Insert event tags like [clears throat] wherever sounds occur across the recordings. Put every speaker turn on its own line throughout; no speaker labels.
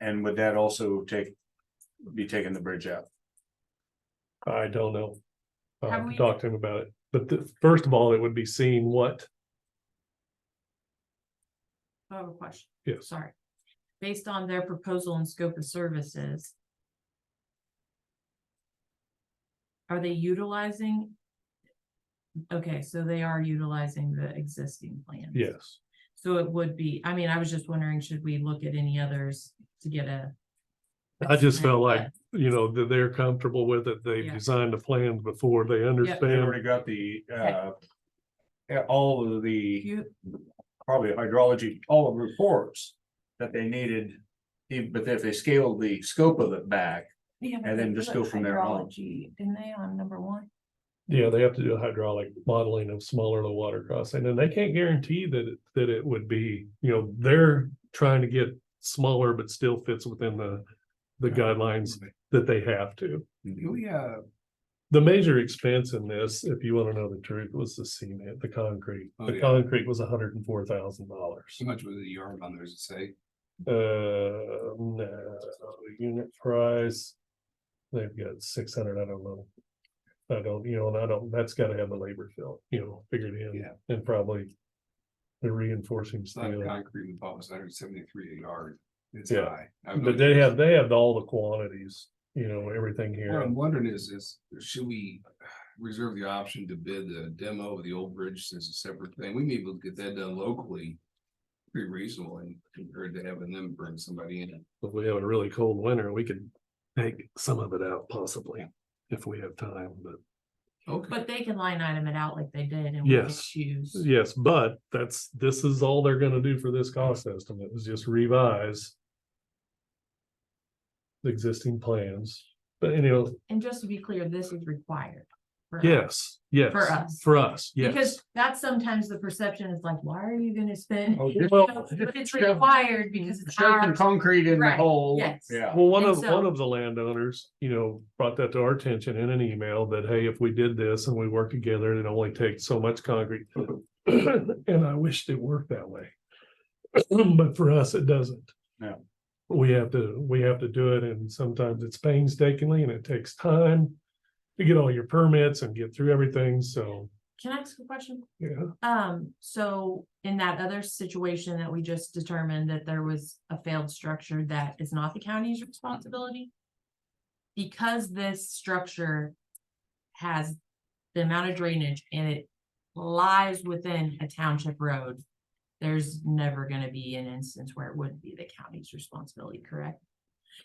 And would that also take, be taking the bridge out?
I don't know. I
Have
have to
we-
talk to him about it, but the, first of all, it would be seeing what,
I have a question.
Yes.
Sorry. Based on their proposal and scope of services. Are they utilizing? Okay, so they are utilizing the existing plan.
yes,
So it would be, I mean, I was just wondering, should we look at any others to get a?
I just felt
estimate,
like, you know, that they're comfortable with it, they've
Yeah.
designed a plan before, they
They
understand.
already got the, uh, yeah, all of
but
the,
you-
probably hydrology, all of the reports that they needed. Even, but if they scaled the scope of it back,
yeah, but
And then
they
just
put
go from there on.
hydrology, Didn't they on number one?
Yeah, they have to do a hydraulic modeling of smaller low water crossing, and they can't guarantee that, it- that it would be, you know, they're trying to get smaller, but still fits within the, the guidelines that they have to.
we, uh,
The major expense in this, if you wanna know the truth, was the cement, the concrete.
Oh,
The
yeah.
concrete was hundred and four thousand dollars.
So much was a yard on there, as it say?
Uh, no, unit price. They've got six hundred, I don't know. I don't, you know, and I don't, that's gotta have the labor fill, you know, figured in,
Yeah.
and probably. The reinforcing
It's not a
steel,
concrete and pump, it's hundred seventy-three a yard. It's
Yeah.
high. I have no
but they
idea.
have, they have all the quantities, you know, everything
What
here.
I'm wondering is, is should we reserve the option to bid the demo of the old bridge as a separate thing? We may be able to get that done locally. Pretty reasonably compared to having them bring somebody in.
If we have a really cold winter, we could take some of it out possibly, if we have time, but.
Okay,
But they can line item it out like they did and we can
Yes.
choose.
Yes, but that's, this is all they're gonna do for this cost estimate is just revise. The existing plans, but anyhow,
And just to be clear, this is required. for us.
yes, yes.
For us.
For us, yes.
Because that's sometimes the perception is like, why are you gonna spend?
Oh,
[laughs] You
just-
know,
well,
But it's
shove-
required because it's
shove some
our,
concrete in the
Right,
hole.
yes.
Yeah.
Well, one
And
of,
so-
one of the landowners, you know, brought that to our attention in an email that, hey, if we did this and we work together, it only takes so much concrete. [clears throat] And I wished it worked that way. [clears throat] But for us, it doesn't.
No.
We have to, we have to do it and sometimes it's painstakingly and it takes time to get all your permits and get through everything. So,
can I ask a question?
yeah,
Um, so in that other situation that we just determined that there was a failed structure that is not the county's responsibility? Because this structure has the amount of drainage and it lies within a township road. There's never gonna be an instance where it wouldn't be the county's responsibility, correct?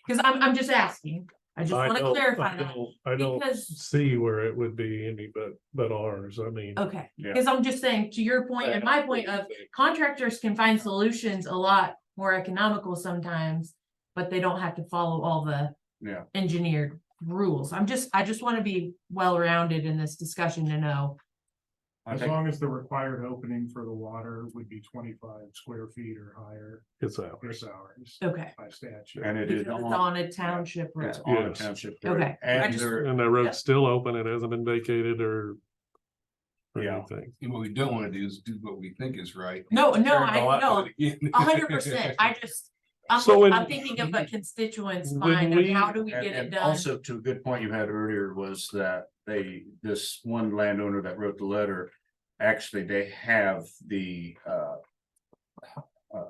Cause I'm, I'm just asking, I just
I
wanna
don't,
clarify
I
that,
don't, I don't
because,
see where it would be any but, but ours. I mean.
okay,
Yeah.
cause I'm just saying, to your point and my point of contractors can find solutions a lot more economical sometimes, but they don't have to follow all the
Yeah.
engineered rules. I'm just, I just want to be well-rounded in this discussion to know.
I
As
think,
long as the required opening for the water would be twenty-five square feet or higher,
It's ours.
there's hours
Okay.
by statute.
and it
because
is
It's
on,
on a township road.
it's on a
Yes.
township. road.
Okay. I
And
just-
there,
And that road's still open, it hasn't been vacated or. or
Yeah.
anything.
and what we don't wanna do is do what we think is right.
No, no,
Turn it all
I
out
know,
with it again.
a hundred percent.
[laughs]
I just, I'm,
So in-
I'm thinking of what constituents
When
find of
we-
how do we
and,
get it
and
done?
also to a good point you had earlier was that they, this one landowner that wrote the letter. Actually, they have the, uh. uh,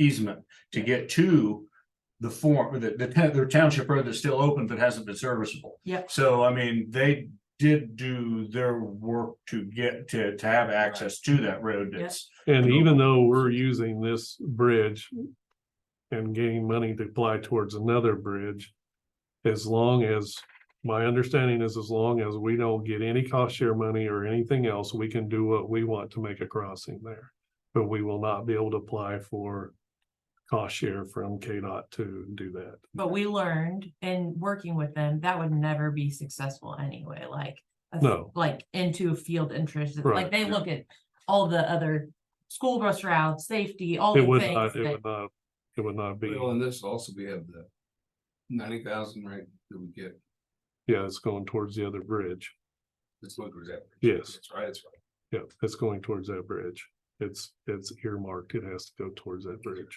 Easement to get to the form, the, the, ta- their township road that's still open but hasn't been serviceable.
Yep.
So I mean, they did do their work to get, to, to have access to that road
Yep.
that's.
And even though we're using this bridge. And getting money to apply towards another bridge. As long as, my understanding is as long as we don't get any cost share money or anything else, we can do what we want to make a crossing there. But we will not be able to apply for cost share from KDOT to do that.
But we learned in working with them, that would never be successful anyway, like. a-
No.
Like into a field interest, It's like
Oh. Right,
they
yeah.
look at all the other school bus routes, safety, all the
It would not,
things.
it
that-
would not, it would not be,
[laughs] Well, and this also, we have the ninety thousand, right, that we get,
yeah, it's going towards the other bridge.
that's what was that.
Yes.
That's right, that's right.
Yeah, it's going towards that bridge. It's, it's earmarked. It has to go towards that bridge.